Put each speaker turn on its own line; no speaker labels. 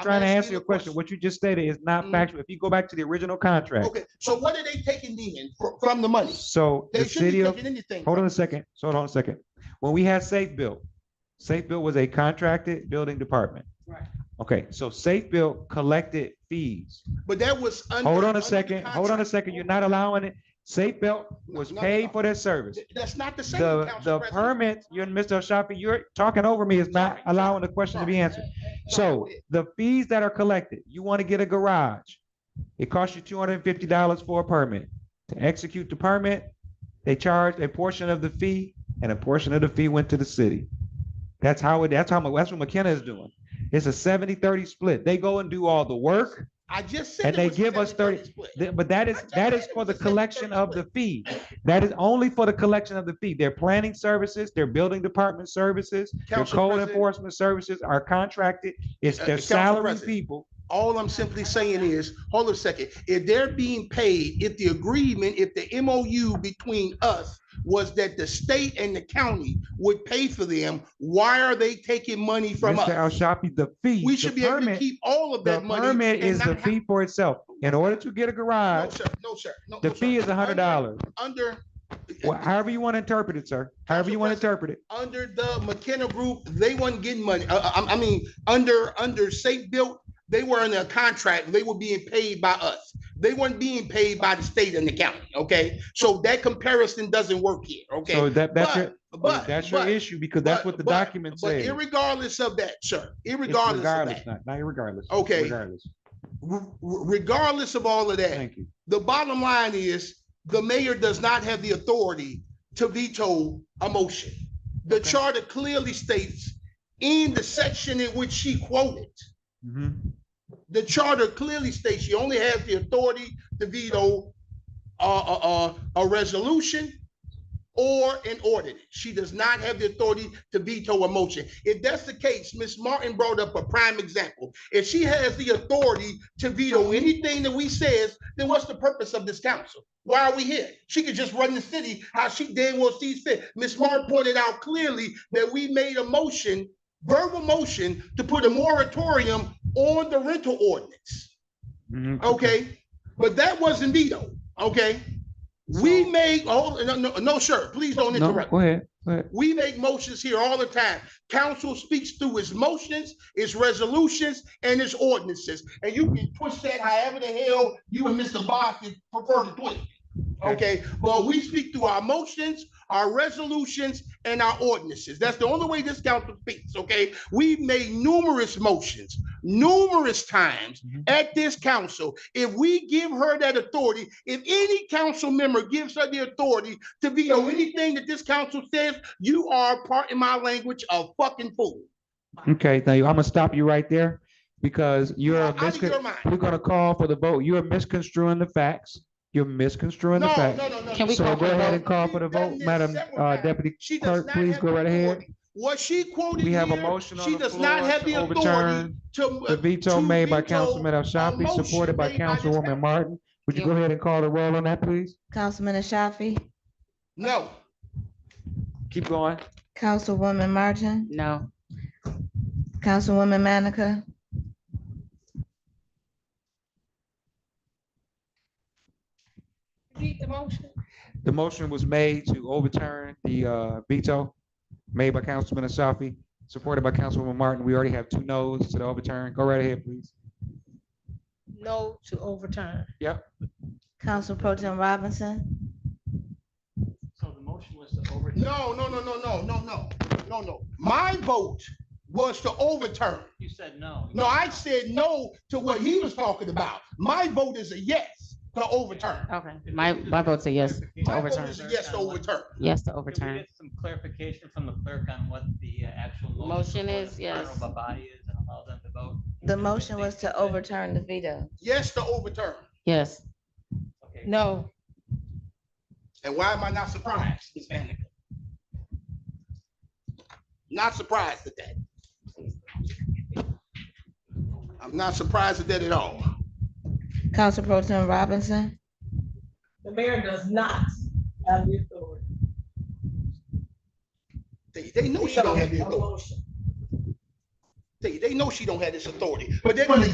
I'm
trying to
asking
answer
you
your
a
question. What you just stated is not
Mm. Oh,
factual. If you go back to the original contract,
Okay, so what are they taking then fr- from the money?
so
They
the
shouldn't
city
be
of,
taking anything.
hold on a second, so hold on a second. When we had Safe Built, Safe Built was a contracted building department.
Right.
Okay, so Safe Built collected fees.
But that was. under-
Hold on
under
a
the
second, hold on a
contract.
second. You're not allowing it. Safe Belt was
No, no,
paid
no.
for their service.
Th- That's not the same.
The,
Council
the
President.
permit, you and Mr. Shafi, you're talking over me, is not
Sorry,
allowing the question to be answered. So the fees that are collected, you want to get a garage. It costs you two hundred and fifty dollars for a permit. To execute the permit, they charge a portion of the fee and a portion of the fee went to the city. That's how it, that's how, that's what McKenna is doing. It's a 70-30 split. They go and do all the work.
I just said.
and
it
they
was
give us
70-30
30
split.
Th- But that is,
I just
that is
said it
for
was
the
a seven
collection
thirty
of the fee. That is only for the collection of the fee. Their planning services, their building department services, their
Council
code
President-
enforcement services are contracted. It's
Uh,
their
Council
salary
President.
people.
All I'm simply saying is, hold on a second, if they're being paid, if the agreement, if the MOU between us was that the state and the county would pay for them, why are they taking money from
Mr.
us?
Al-Shafi, the fee.
We
the
should be able to
permit-
keep all of
The
that money.
permit
and
is the
not
fee for itself. In order to get a
have- No,
garage,
sir, no, sir. no,
Uh, the
no, sir.
fee is a hundred dollars.
Under.
Well, however you want to interpret it, sir. However
Council
you want to
President.
interpret it.
under the McKenna Group, they weren't getting money. Uh, I, I mean, under, under Safe Built, they were in a contract. They were being paid by us. They weren't being paid by the state and the county, okay? So that comparison doesn't work here,
So
okay?
that, that's your,
But, but,
that's your
but-
issue because that's
but-
what the
but-
document
But
says.
irregardless of that, sir,
It's
irregardless of
regardless,
that,
Not, not irregardless. it's
Okay.
Regardless.
re- re- regardless of all of that,
Thank you.
the bottom line is the mayor does not have the authority to veto a motion. The
Okay.
charter clearly states in the section in which she quoted,
Mhm.
the charter clearly states she only has the authority to veto a, a, a, a resolution or an ordinance. She does not have the authority to veto a motion. If that's the case, Ms. Martin brought up a prime example. If she has the authority to veto anything that we says, then what's the purpose of this council? Why are we here? She could just run the city how she damn well sees fit. Ms. Martin pointed out clearly that we made a motion verbal motion to put a moratorium on the rental ordinance,
Mhm.
okay? But that wasn't vetoed, okay? We made, oh, no, no, no, sir, please don't
No,
interrupt.
go ahead, go ahead.
We make motions here all the time. Council speaks through its motions, its resolutions, and its ordinances. And you can twist that however the hell you and Mr. Boston prefer to twist. it. Okay, but we speak through our motions, our resolutions, and our ordinances. That's the only way this council speaks, okay? We've made numerous motions, numerous times
Mhm.
at this council. If we give her that authority, if any council member gives her the authority to veto anything that this council says, you are, part in my language, a fucking fool.
Okay, thank you. I'm gonna stop you right there because you're
Out of your
miscon,
mind.
we're gonna call for the vote. You're misconstruing the facts. You're misconstruing the
No,
facts.
no, no, no.
Can we
no.
So
call for
go
the
ahead
vote?
and call for the
We've done
vote,
this
Madam
several
uh,
times.
Deputy
She does
Clerk,
not
please
have
go
the
right ahead.
authority. What she quoted
We have a
here,
motion on
she
the
does not
floor
have the
to
authority
overturn
to. uh,
the veto
to
made by
veto
Councilman Al Shafi,
motion
supported by
made by this
Councilwoman
council.
Martin. Would you go ahead and call the roll on that, please?
Councilman Ashafi,
No,
Keep going.
Councilwoman Martin,
No.
Councilwoman Manica.
The motion was made to overturn the uh, veto made by Councilman Ashafi, supported by Councilwoman Martin. We already have two noes to the overturn. Go right ahead, please.
no to overturn.
Council Pro Tim Robinson,
So the motion was to overturn.
no, no, no, no, no, no, no, no, no. My vote was to overturn.
You said no.
No, I said no to what he was talking about. My vote is a yes to overturn.
Okay. My, my vote's a yes to
My vote
overturn.
is a yes to overturn.
Yes to
Could we
overturn.
get some clarification from the clerk on what the uh, actual?
Motion
before
is,
the
yes.
clerk of the Body is and allow them to vote?
the
If they
motion was
think
to
that-
overturn the veto.
Yes to overturn.
Yes.
Okay.
No,
And why am I not surprised, Ms. Manica? Not surprised at that. I'm not surprised at that at all.
Council Pro Tim Robinson,
The mayor does not have the authority.
They, they know she don't have the authority.
Motion.
They, they know she don't have this authority, but they're gonna